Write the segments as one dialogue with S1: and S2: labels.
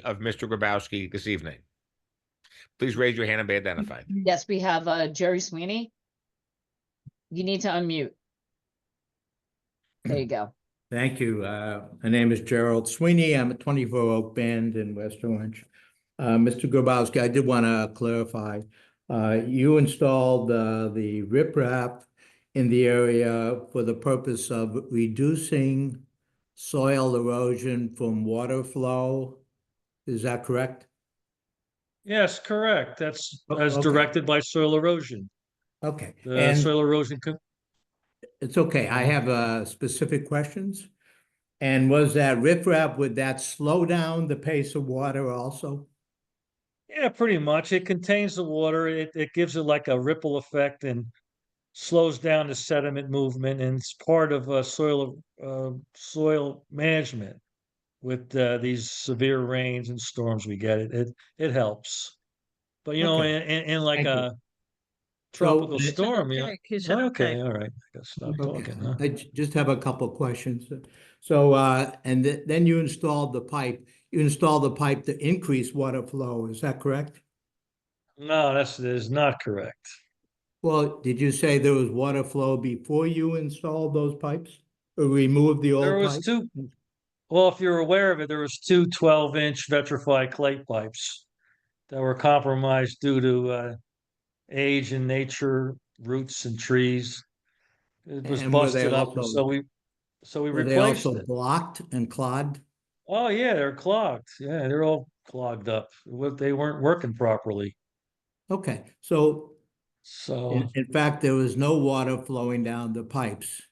S1: of Mr. Grabowski this evening? Please raise your hand and be identified.
S2: Yes, we have uh, Jerry Sweeney. You need to unmute. There you go.
S3: Thank you. Uh, My name is Gerald Sweeney. I'm at 24 Oak Bend in West Orange. Uh, Mr. Grabowski, I did want to clarify. uh, You installed uh, the riprap in the area for the purpose of reducing soil erosion from water flow. Is that correct?
S4: Yes, correct. That's
S3: O-
S4: as
S3: okay.
S4: directed by soil erosion.
S3: Okay.
S4: The
S3: And-
S4: soil erosion, co-
S3: It's okay, I have uh specific questions. And was that riprap, would that slow down the pace of water also?
S4: yeah, pretty much. It contains the water. It, it gives it like a ripple effect and slows down the sediment movement and it's part of uh, soil, uh, soil management. With uh, these severe rains and storms we get, it, it, it helps. But you know,
S3: Okay.
S4: in, in, in like
S3: Thank you.
S4: a tropical
S3: So-
S4: storm, you know, okay, all right, I gotta stop
S3: Okay,
S4: talking, huh?
S3: I ju- just have a couple of questions. So uh, and th- then you installed the pipe, you installed the pipe to increase water flow, is that correct?
S4: No, that's, that is not correct.
S3: Well, did you say there was water flow before you installed those pipes? Or removed the old
S4: There was
S3: pipes?
S4: two, well, if you're aware of it, there was two 12-inch vitrified clay pipes that were compromised due to uh, age and nature, roots and trees. It was
S3: And were they
S4: busted up, and
S3: also-
S4: so we, so we
S3: Were they
S4: replaced
S3: also
S4: it.
S3: blocked and clogged?
S4: Oh, yeah, they're clogged. Yeah, they're all clogged up. What, they weren't working properly.
S3: Okay, so
S4: So,
S3: In, in fact, there was no water flowing down the pipes.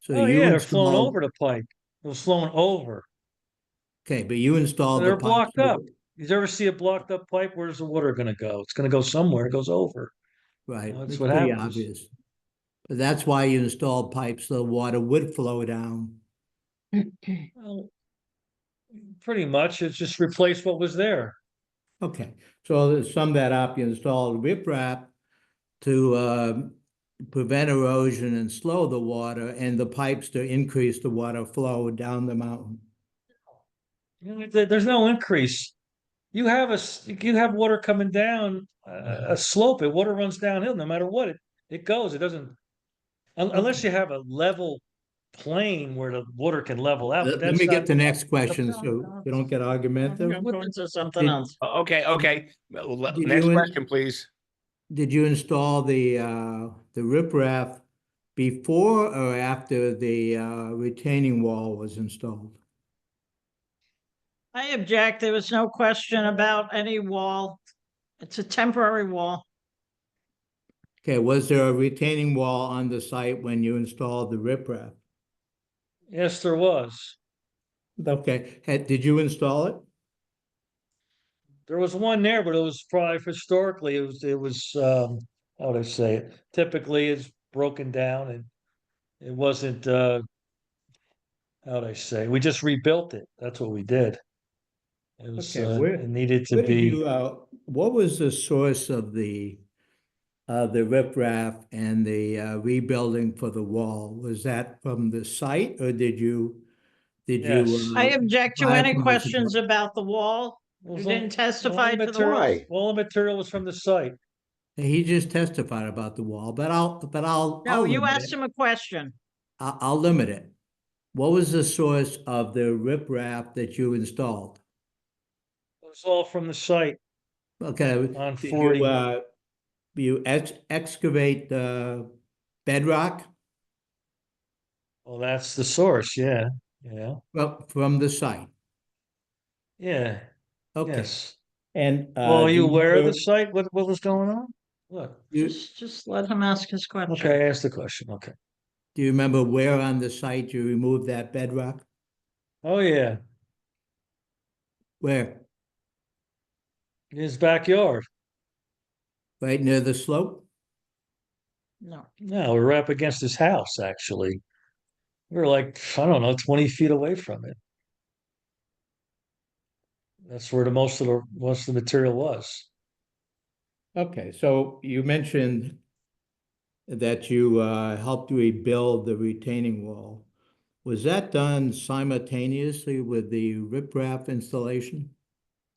S3: So
S4: oh,
S3: you
S4: yeah, they're flowing
S3: installed-
S4: over the pipe. It was flowing over.
S3: Okay, but you installed the
S4: They're
S3: pipes.
S4: blocked
S3: over-
S4: up. Did you ever see a blocked up pipe? Where's the water gonna go? It's gonna go somewhere. It goes over.
S3: Right,
S4: That's
S3: it's
S4: what
S3: pretty
S4: happens.
S3: obvious. But that's why you installed pipes, so the water would flow down.
S4: Well, pretty much, it's just replaced what was there.
S3: Okay, so to sum that up, you installed riprap to um, prevent erosion and slow the water and the pipes to increase the water flow down the mountain.
S4: You know, there- There's no increase. You have a, s- you have water coming down a, a slope, it water runs downhill no matter what, it, it goes, it doesn't. un- Unless you have a level plane where the water can level out.
S3: Let
S4: but
S3: let
S4: that's
S3: me
S4: not-
S3: get the next question,
S5: problem
S3: so
S5: is-
S3: you don't get argumentative.
S5: I'm going to something
S3: Did-
S5: else.
S1: Okay, okay. Well, le-
S3: Did
S1: Next
S3: you-
S1: question, please.
S3: Did you install the, uh, the riprap before or after the, uh, retaining wall was installed?
S5: I object. There was no question about any wall. It's a temporary wall.
S3: Okay, was there a retaining wall on the site when you installed the riprap?
S4: Yes, there was.
S3: Okay, had, did you install it?
S4: There was one there, but it was probably historically, it was, it was, um, how would I say it? Typically it's broken down and it wasn't, uh, how would I say? We just rebuilt it. That's what we did. It was,
S3: Okay,
S4: uh,
S3: where-
S4: it needed to
S3: Where did
S4: be,
S3: you, uh, what was the source of the, of the riprap and the, uh, rebuilding for the wall? Was that from the site or did you, did
S4: Yes.
S3: you?
S5: I
S3: uh,
S5: object to
S3: I
S5: any
S3: apologize.
S5: questions about the wall.
S4: It
S5: You
S4: was all-
S5: didn't
S4: all the
S5: testify to the wall.
S4: materials- all the material was from the site.
S3: He just testified about the wall, but I'll, but I'll.
S5: No,
S3: I'll
S5: you
S3: limit it.
S5: asked him a question.
S3: I, I'll limit it. What was the source of the riprap that you installed?
S4: It was all from the site
S3: Okay.
S4: on
S3: did you,
S4: forty.
S3: uh, You ex- excavate the bedrock
S4: Well, that's the source. Yeah, yeah,
S3: fro- from the site?
S4: yeah,
S3: Okay,
S4: yes.
S3: and. uh,
S4: Well, are
S3: do
S4: you aware of the
S3: do-
S4: site? What, what was going on? What?
S3: You-
S5: Just, just let him ask his question.
S4: Okay, I asked the question. Okay.
S3: Do you remember where on the site you removed that bedrock?
S4: Oh, yeah.
S3: Where?
S4: In his backyard.
S3: Right near the slope?
S5: No,
S4: No, we were up against his house, actually. We were like, I don't know, 20 feet away from it. That's where the most of the most of the material was.
S3: Okay, so you mentioned that you uh, helped rebuild the retaining wall. Was that done simultaneously with the riprap installation?